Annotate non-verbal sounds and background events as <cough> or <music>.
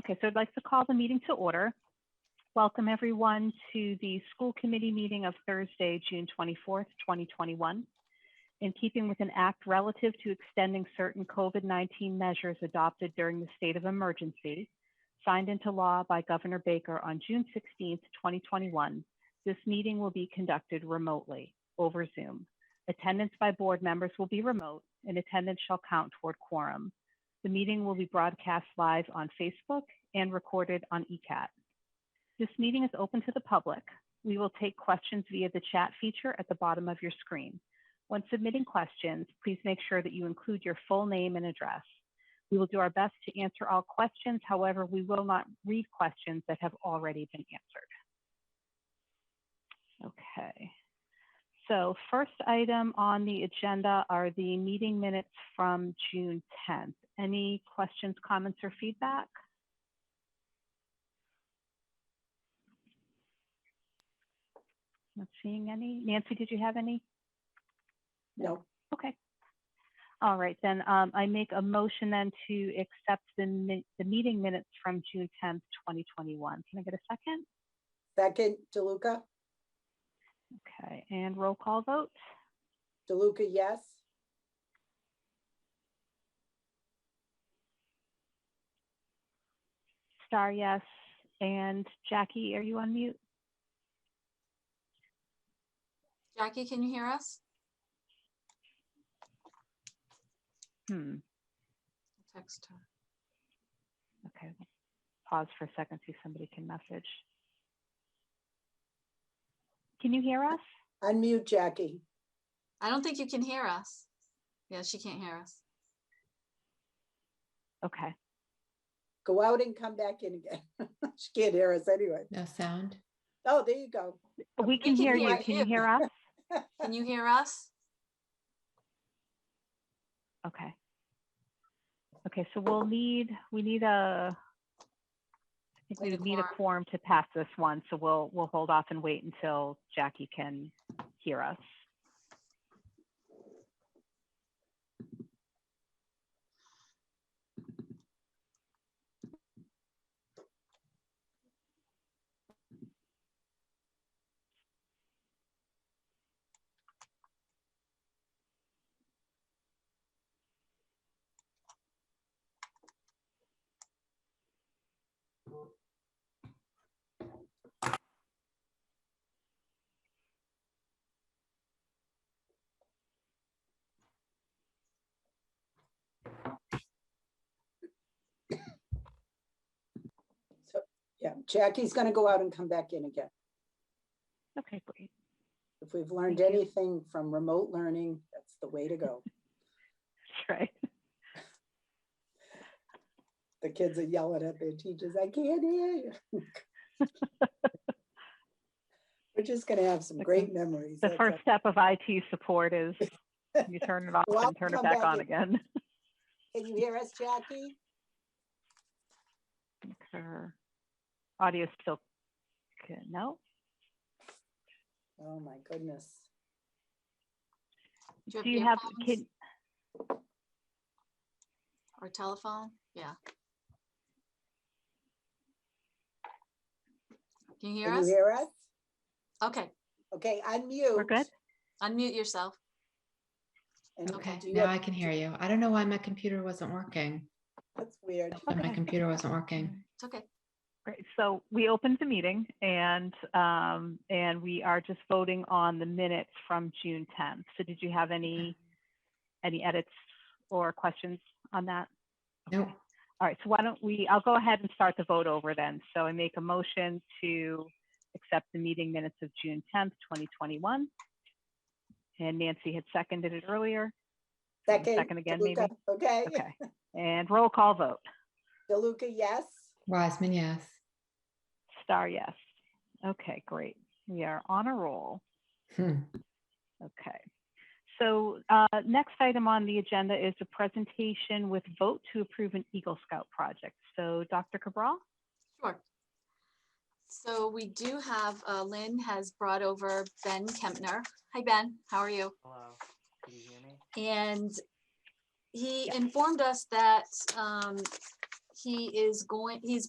Okay, so I'd like to call the meeting to order. Welcome, everyone, to the school committee meeting of Thursday, June 24th, 2021. In keeping with an act relative to extending certain COVID-19 measures adopted during the state of emergency, signed into law by Governor Baker on June 16th, 2021, this meeting will be conducted remotely over Zoom. Attendance by board members will be remote, and attendance shall count toward quorum. The meeting will be broadcast live on Facebook and recorded on ECAT. This meeting is open to the public. We will take questions via the chat feature at the bottom of your screen. When submitting questions, please make sure that you include your full name and address. We will do our best to answer all questions. However, we will not read questions that have already been answered. Okay. So first item on the agenda are the meeting minutes from June 10th. Any questions, comments, or feedback? Not seeing any. Nancy, did you have any? No, Okay. All right, then, um, I make a motion then to accept the min, the meeting minutes from June 10th, 2021. Can I get a second? second, DeLuca, Okay, and roll call vote? DeLuca, yes. Star, yes. And Jackie, are you on mute? Jackie, can you hear us? Hmm, Text her. okay. Pause for a second, see if somebody can message. Can you hear us? Unmute Jackie. I don't think you can hear us. Yeah, she can't hear us. Okay, Go out and come back in again. <laughs> She can't hear us anyway. No sound. Oh, there you go. we can can hear you. hear Can you you. hear us? Can you hear us? Okay. Okay, so we'll need, we need a, I Need a think we need a quorum quorum. to pass this one, so we'll, we'll hold off and wait until Jackie can hear us. Yeah, Jackie's gonna go out and come back in again. Okay, great. If we've learned Thank you. anything from remote learning, that's the way to go. That's <laughs> right. The kids are yelling at their teachers, I can't hear you. <laughs> We're just gonna have some great memories. The that's first all. step of IT support is you turn it off Well, and turn it come back back on in. again. <laughs> Can you hear us, Jackie? Her Audio still, good. no? Oh, my goodness. Do Do you have, earphones can, Or telephone? Yeah. Can you hear Can you us? hear us? Okay, Okay, unmute. we're good? unmute yourself. And Okay. do you Now have- I can hear you. I don't know why my computer wasn't working. That's weird. When my Okay. computer wasn't working. It's okay. Great. So we opened the meeting and, um, and we are just voting on the minutes from June 10th. So did you have any, any edits or questions on that? Nope. All right. So why don't we, I'll go ahead and start the vote over then. So I make a motion to accept the meeting minutes of June 10th, 2021. And Nancy had seconded it earlier. Wanna Second. second again, DeLuca, maybe? Okay. Okay. And roll call vote. DeLuca, yes. Wiseman, yes. <laughs> Star, yes. Okay, great. We are on a roll. Hmm. Okay. So uh, next item on the agenda is a presentation with vote to approve an Eagle Scout project. So Dr. Cabral? Sure. So we do have, uh, Lynn has brought over Ben Kempner. Hi, Ben. How are you? Hello, can you hear me? And he informed us that um, he is going, he's